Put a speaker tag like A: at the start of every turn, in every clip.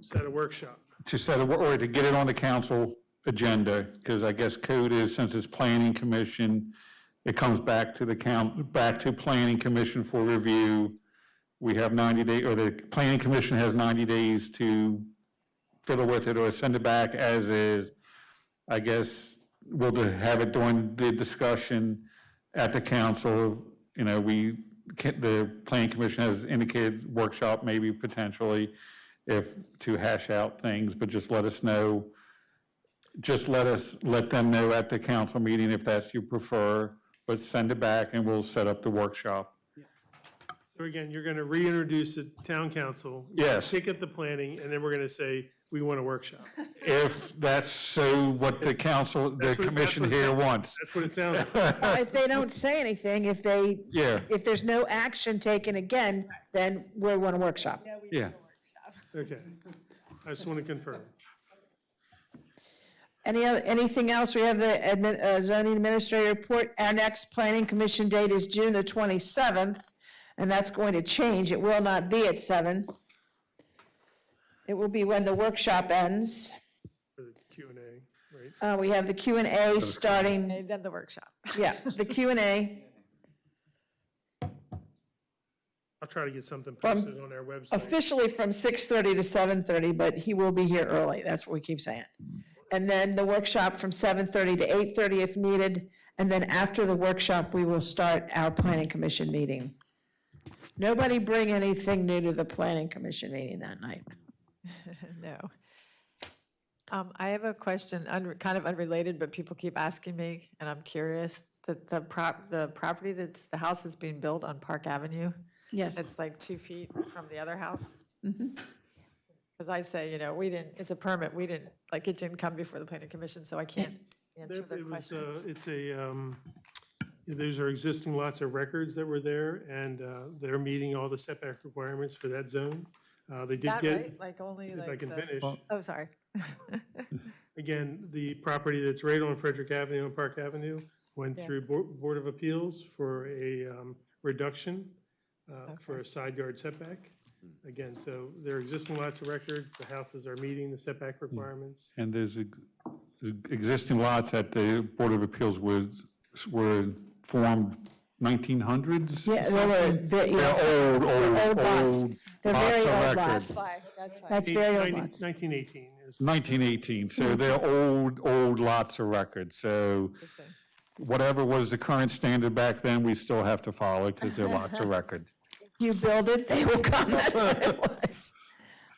A: set a workshop.
B: to set, a wor- or to get it on the council agenda, because I guess code is, since it's planning commission, it comes back to the coun, back to planning commission for review. We have 90 day, or the planning commission has 90 days to fiddle with it or send it back as is. I guess we'll do- have it during the discussion at the council. You know, we, ca- the planning commission has indicated workshop maybe potentially if, to hash out things, but just let us know. Just let us, let them know at the council meeting if that's you prefer, but send it back and we'll set up the workshop.
A: So again, you're going to reintroduce the town council. you're gonna
B: Yes.
A: Pick up the planning, and then we're going to say, we want a workshop.
B: If that's so what the council, the
A: That's what- that's
B: commission
A: what-
B: here wants.
A: That's what it sounds like.
C: If they don't say anything, if they,
B: Yeah,
C: if there's no action taken again, then we want a workshop.
B: yeah.
A: Okay. I just want to confirm.
C: Any, oth- anything else? We have the admin- uh, zoning administrator report. Our next planning commission date is June the 27th, and that's going to change. It will not be at seven. It will be when the workshop ends.
A: for the Q and A, right?
C: Uh, We have the Q and A starting,
D: Then the workshop.
C: yeah, the Q and A
A: I'll try to get something posted on our website.
C: officially from 6:30 to 7:30, but he will be here early. That's what we keep saying. And then the workshop from 7:30 to 8:30 if needed. And then after the workshop, we will start our planning commission meeting. Nobody bring anything new to the planning commission meeting that night.
D: No. Um, I have a question, un- kind of unrelated, but people keep asking me, and I'm curious, that the prop, the property that's, the house is being built on Park Avenue,
C: Yes.
D: it's like two feet from the other house? Mm-hmm. Because I say, you know, we didn't, it's a permit, we didn't, like, it didn't come before the planning commission, so I can't answer
A: There- it
D: the
A: was, uh,
D: questions.
A: It's a, um, those are existing lots of records that were there, and uh, they're meeting all the setback requirements for that zone. Uh, They did
D: That,
A: get,
D: right? Like, only
A: if I
D: like
A: can
D: the,
A: finish,
D: oh, sorry.
A: again, the property that's right on Frederick Avenue and Park Avenue went
D: Yeah.
A: through Bo- Board of Appeals for a um, reduction uh, for a side yard setback. Again, so there are existing lots of records, the houses are meeting the setback requirements.
B: And there's ex- existing lots at the Board of Appeals was, were formed 1900s?
C: Yeah, they were, they- yes,
B: They're old,
C: They're
B: old,
C: old lots.
B: old.
C: They're
B: lots
C: very
B: of
C: old
B: records.
C: lots. that's very old
A: 19-
C: lots.
A: 1918 is,
B: 1918, so they're old, old lots of records. So
D: Interesting.
B: whatever was the current standard back then, we still have to follow because they're lots of record.
C: You build it, they will come, that's what it was.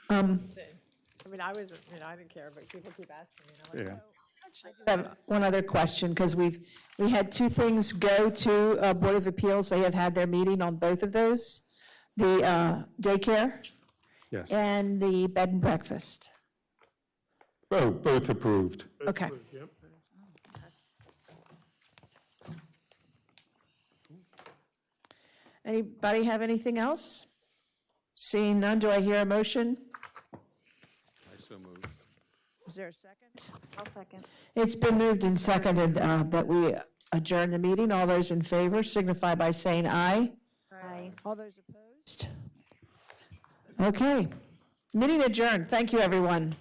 D: I mean, I was, you know, I didn't care, but people keep asking me, and I'm
B: Yeah.
D: like, oh.
C: I have one other question, because we've, we had two things go to uh, Board of Appeals. They have had their meeting on both of those, the uh, daycare
B: Yes.
C: and the bed and breakfast.
B: Oh, both approved.
C: Okay.
A: yep.
C: Anybody have anything else? Seeing none, do I hear a motion? Is there a second?
E: I'll second.
C: It's been moved and seconded uh, that we adjourn the meeting. All those in favor signify by saying aye.
E: Aye.
C: All those opposed? Okay. Meeting adjourned. Thank you, everyone.